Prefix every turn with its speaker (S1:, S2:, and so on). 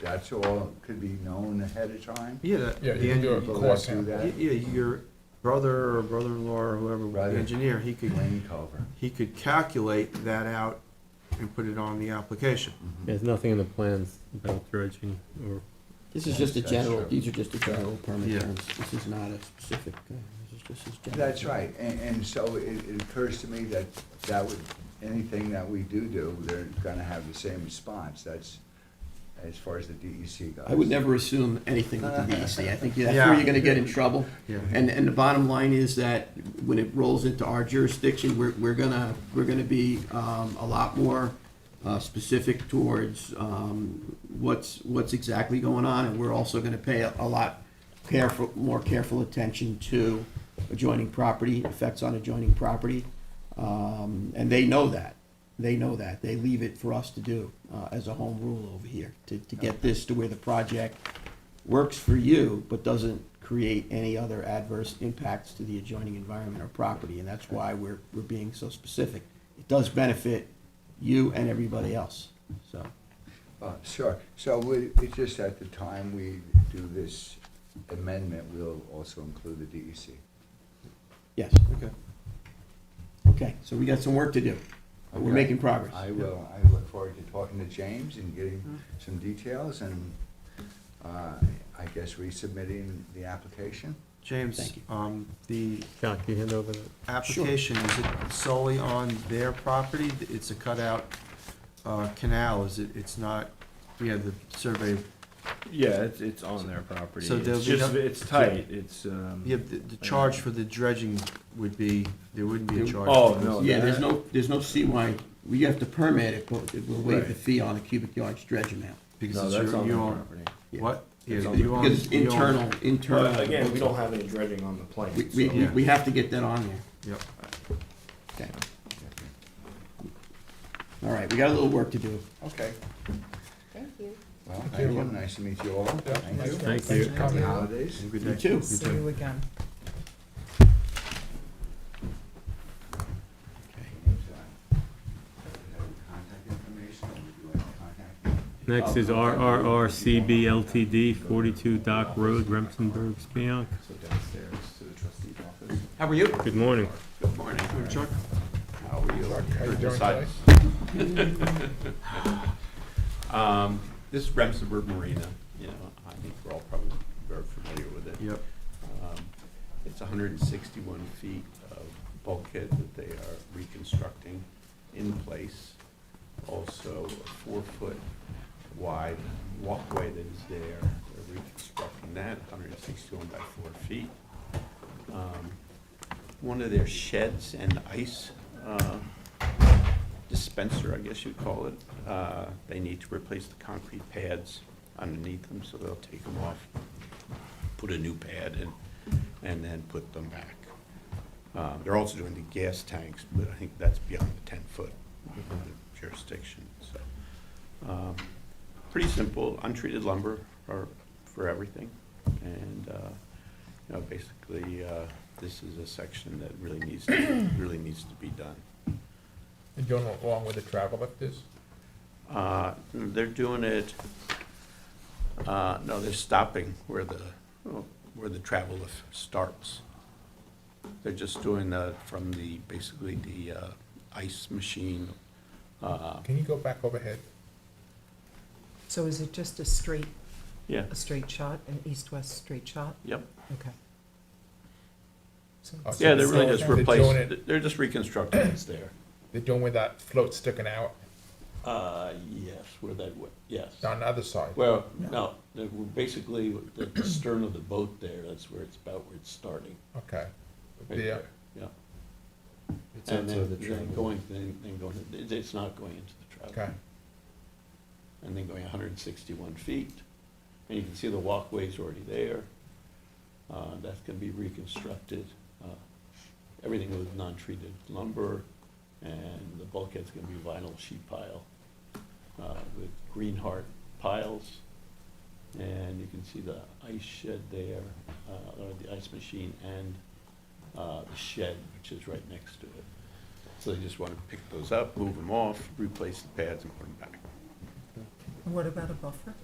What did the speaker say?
S1: that's all could be known ahead of time?
S2: Yeah, that-
S3: Yeah,
S2: the
S3: you can do a
S2: engineer,
S1: People
S3: core
S1: that do
S3: sample.
S1: that,
S2: yeah, your brother or brother-in-law or whoever,
S1: Right.
S2: the engineer, he could,
S1: lane cover.
S2: he could calculate that out and put it on the application.
S4: There's nothing in the plans about dredging or
S5: This is just a
S1: That's
S5: general,
S1: true.
S5: these are just a general
S2: Yeah.
S5: permit terms. This is not a specific, uh, this is, this is general.
S1: That's right, and, and so it, it occurs to me that that would, anything that we do do, they're gonna have the same response, that's as far as the DEC goes.
S5: I would never assume anything with the DEC. I think that's
S2: Yeah.
S5: where you're gonna get in trouble.
S2: Yeah.
S5: And, and the bottom line is that when it rolls into our jurisdiction, we're, we're gonna, we're gonna be, um, a lot more, uh, specific towards, um, what's, what's exactly going on, and we're also gonna pay a, a lot careful, more careful attention to adjoining property, effects on adjoining property. Um, and they know that. They know that. They leave it for us to do, uh, as a home rule over here, to, to get this to where the project works for you, but doesn't create any other adverse impacts to the adjoining environment or property, and that's why we're, we're being so specific. It does benefit you and everybody else, so.
S1: Uh, Sure, so we, it's just at the time we do this amendment, we'll also include the E DEC.
S5: Yes,
S2: Okay.
S5: okay, so we got some work to do.
S1: Okay.
S5: We're making progress.
S1: I will, I look forward to talking to James and
S6: Mm-hmm.
S1: getting some details and, uh, I guess resubmitting the application.
S2: James,
S5: Thank you.
S2: um, the
S4: Jack, you hand over that?
S2: application, is it solely on their property? It's a cutout, uh, canal, is it, it's not, we have the survey,
S7: Yeah, it's, it's on their property.
S2: So there'll
S7: It's
S2: be
S7: just,
S2: no-
S7: it's tight, it's, um.
S2: yeah, the, the charge for the dredging would be, there wouldn't be a charge.
S7: Oh,
S2: for this.
S7: no.
S5: Yeah,
S7: that-
S5: there's no, there's no CY, we have to permit it, but we'll waive the
S7: Right.
S5: fee on a cubic yard dredge amount.
S7: No,
S2: Because it's
S7: that's
S2: your,
S7: on
S2: you
S7: their
S2: own,
S7: property.
S5: Yeah.
S2: what? Yeah,
S7: It's on
S2: you own-
S5: Because it's
S2: you own-
S5: internal, internal.
S8: But again, we don't have any dredging on the plane.
S5: We, we,
S8: so-
S5: we- we have to get that on there.
S2: Yep.
S5: Okay. All right, we got a little work to do.
S1: Okay,
S6: Thank you.
S1: well, thank you, nice to meet you all. Thank you.
S4: Thank you.
S1: Happy holidays.
S2: Good
S5: You
S2: day.
S5: too.
S2: You
S6: See
S2: too.
S6: you again.
S1: Contact information, or would you like to contact me?
S4: Next is RRRCB LTD, 42 Dock Road, Remsenburg, Spion.
S7: So downstairs to the trustee's office.
S5: How are you?
S4: Good morning.
S5: Good morning.
S2: Chuck?
S1: How are you?
S3: How you doing today?
S9: Um, This is Remsenburg Marina, you know, I think we're all probably very familiar with it.
S2: Yep.
S9: Um, It's hundred and sixty-one feet of bulkhead that they are reconstructing in place. Also, a four-foot wide walkway that is there, they're reconstructing that, hundred and sixty-one by four feet. Um, One of their sheds and ice uh, dispenser, I guess you'd call it. Uh, They need to replace the concrete pads underneath them, so they'll take them off, put a new pad in, and then put them back. Uh, They're also doing the gas tanks, but I think that's beyond the 10-foot jurisdiction, so. um, Pretty simple, untreated lumber are for everything, and, uh, you know, basically, uh, this is a section that really needs, to- really needs to be done.
S3: You going along with the travel like this?
S9: Uh, They're doing it, uh, no, they're stopping where the, where the travel lift starts. They're just doing the, from the, basically the uh, ice machine. uh,
S3: Can you go back overhead?
S6: So is it just a straight,
S9: Yeah,
S6: a straight shot, an east-west straight shot?
S9: yep.
S6: Okay. So it's-
S9: Yeah, they're really just
S3: They're doing
S9: replacing,
S3: it-
S9: they're just reconstructing what's there.
S3: They're doing where that float's sticking out
S9: Uh, yes, where that, wa- yes.
S3: on the other side.
S9: Well, no, they were basically, the the stern of the boat there, that's where it's, about where it's starting.
S3: Okay.
S9: right
S3: Yeah.
S9: there, Yeah.
S7: It's
S9: And
S7: outside
S9: then,
S7: the
S9: then
S7: triangle.
S9: going, then, then going, it- it's not going into the travel.
S3: Okay.
S9: And then going hundred and sixty-one feet, and you can see the walkway's already there. Uh, that's gonna be reconstructed, uh, everything was non-treated lumber, and the bulkhead's gonna be vinyl sheet pile, uh, with green heart piles. And you can see the ice shed there, uh, or the ice machine and, uh, the shed, which is right next to it. So they just want to pick those up, move them off, replace the pads and put them back.
S6: What about a buffer?